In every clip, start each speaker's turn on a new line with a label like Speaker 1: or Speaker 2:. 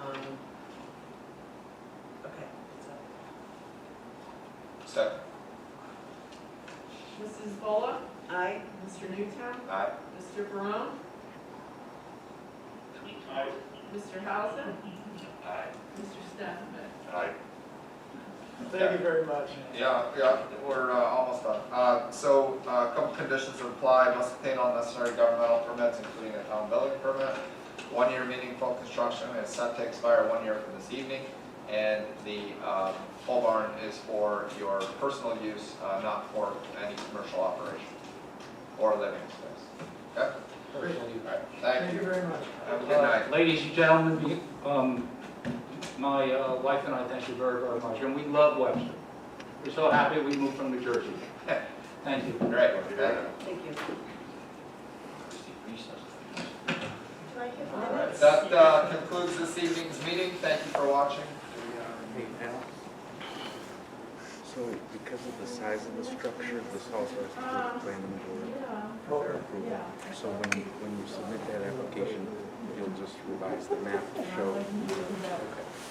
Speaker 1: Um,
Speaker 2: Second.
Speaker 3: Mrs. Bullock,
Speaker 1: Aye.
Speaker 3: Mr. Newtown,
Speaker 2: Aye.
Speaker 3: Mr. Barone,
Speaker 4: Aye.
Speaker 3: Mr. Hausen,
Speaker 4: Aye.
Speaker 3: Mr. Stafford.
Speaker 4: Aye.
Speaker 5: Thank you very much.
Speaker 2: Yeah, yeah, we're uh, almost done. Uh, So uh, a couple conditions apply, must obtain all necessary governmental permits, including a town building permit, one-year meaningful construction, and it's set to expire one year from this evening. And the um, pole barn is for your personal use, uh, not for any commercial operation or living space. Okay? All right,
Speaker 5: Thank
Speaker 2: thank
Speaker 5: you
Speaker 2: you.
Speaker 5: very much.
Speaker 2: Have a good night.
Speaker 6: Uh, Ladies and gentlemen, be- um, my uh, wife and I thank you very, very much, and we love Webster. We're so happy we moved from New Jersey. Thank you.
Speaker 2: Great, thank you.
Speaker 1: Thank you. Do I get
Speaker 2: All right, that uh, concludes this evening's meeting. Thank you for watching.
Speaker 7: Hey, Al. So because of the size of the structure, this house has to be planned in the board
Speaker 3: Yeah,
Speaker 7: for their approval. So when, you- when you submit that application, you'll just revise the map to show.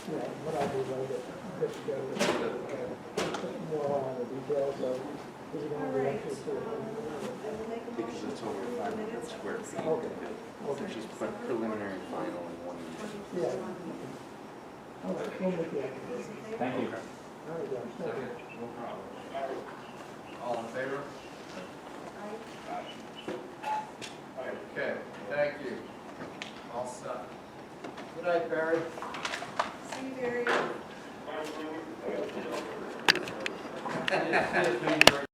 Speaker 5: Yeah, what I'll do is I'll get, put together, uh, put more on the details of, is it gonna be actually to
Speaker 7: Because it's over five hundred square feet.
Speaker 5: Okay.
Speaker 7: It's Just put preliminary and final in one.
Speaker 5: Yeah. All right, we'll make the application.
Speaker 6: Thank you.
Speaker 5: All right, guys, thank you.
Speaker 2: All in favor? Okay, thank you. All set. Good night, Barry.
Speaker 1: See you, Barry.
Speaker 4: Aye.
Speaker 6: Thank you very